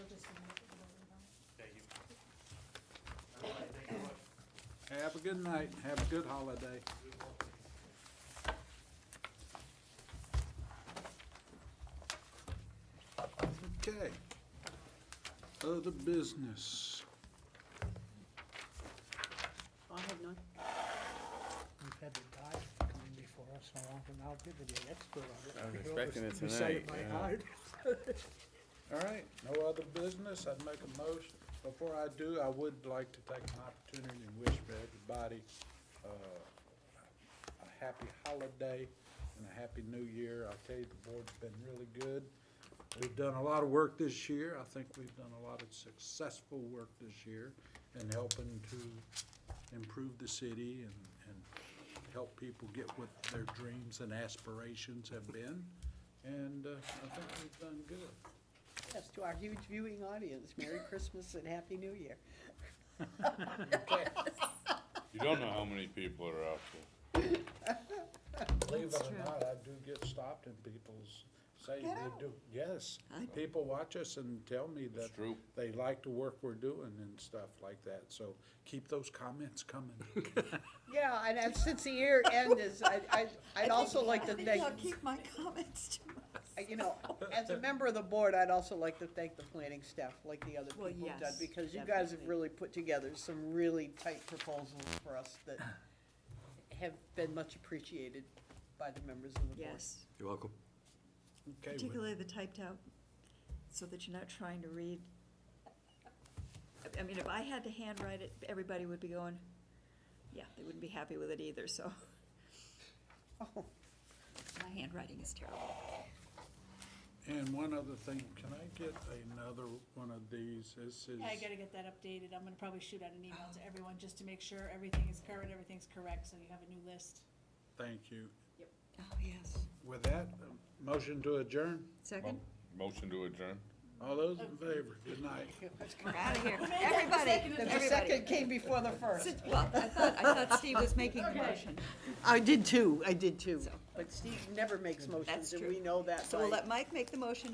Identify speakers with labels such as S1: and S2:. S1: Have a good night, and have a good holiday. Okay. Other business.
S2: I have none.
S3: We've had the guy come in before us so long, and I'll give you the expert on it.
S4: I was
S3: We
S4: expecting
S3: always-
S4: it
S3: We say it
S4: tonight,
S3: by
S4: yeah.
S3: heart.
S1: All right, no other business, I'd make a motion. Before I do, I would like to take an opportunity and wish for everybody, uh, a happy holiday and a happy new year. I tell you, the board's been really good. We've done a lot of work this year, I think we've done a lot of successful work this year in helping to improve the city and, and help people get what their dreams and aspirations have been. And, uh, I think we've done good.
S2: Yes, to our huge viewing audience, Merry Christmas and Happy New Year.
S4: You don't know how many people are out there.
S1: Believe it or not, I do get stopped and people s- say they do, yes. People watch us and tell me that
S4: true.
S1: they like the work we're doing and stuff like that, so keep those comments coming.
S2: Yeah, and as- since the year end is, I, I, I'd also like to
S5: I think
S2: thank, uh,
S5: I'll keep my comments to myself.
S2: you know, as a member of the board, I'd also like to thank the planning staff, like the other people
S5: Well,
S2: have done,
S5: yes,
S2: because you guys have
S5: definitely.
S2: really put together some really tight proposals for us that have been much appreciated by the members of the board.
S5: Yes,
S6: You're welcome.
S1: Okay, well,
S5: particularly the typed out, so that you're not trying to read. I- I mean, if I had to handwrite it, everybody would be going, yeah, they wouldn't be happy with it either, so. Oh. My handwriting is terrible.
S1: and one other thing, can I get another one of these? This is,
S7: Yeah, I gotta get that updated, I'm gonna probably shoot out an email to everyone just to make sure everything is current, everything's correct, so you have a new list.
S1: thank you.
S5: Oh, yes.
S1: With that, um, motion to adjourn?
S5: Second?
S4: Motion to adjourn?
S1: All those in favor, good night.
S5: We're out of here. Everybody,
S2: The second came before the first.
S5: Well, I thought, I thought Steve was making a motion,
S2: I did too, I did too.
S5: So-
S2: But Steve never makes motions,
S5: That's
S2: and
S5: true.
S2: we know that
S5: so we'll
S2: by-
S5: let Mike make the motion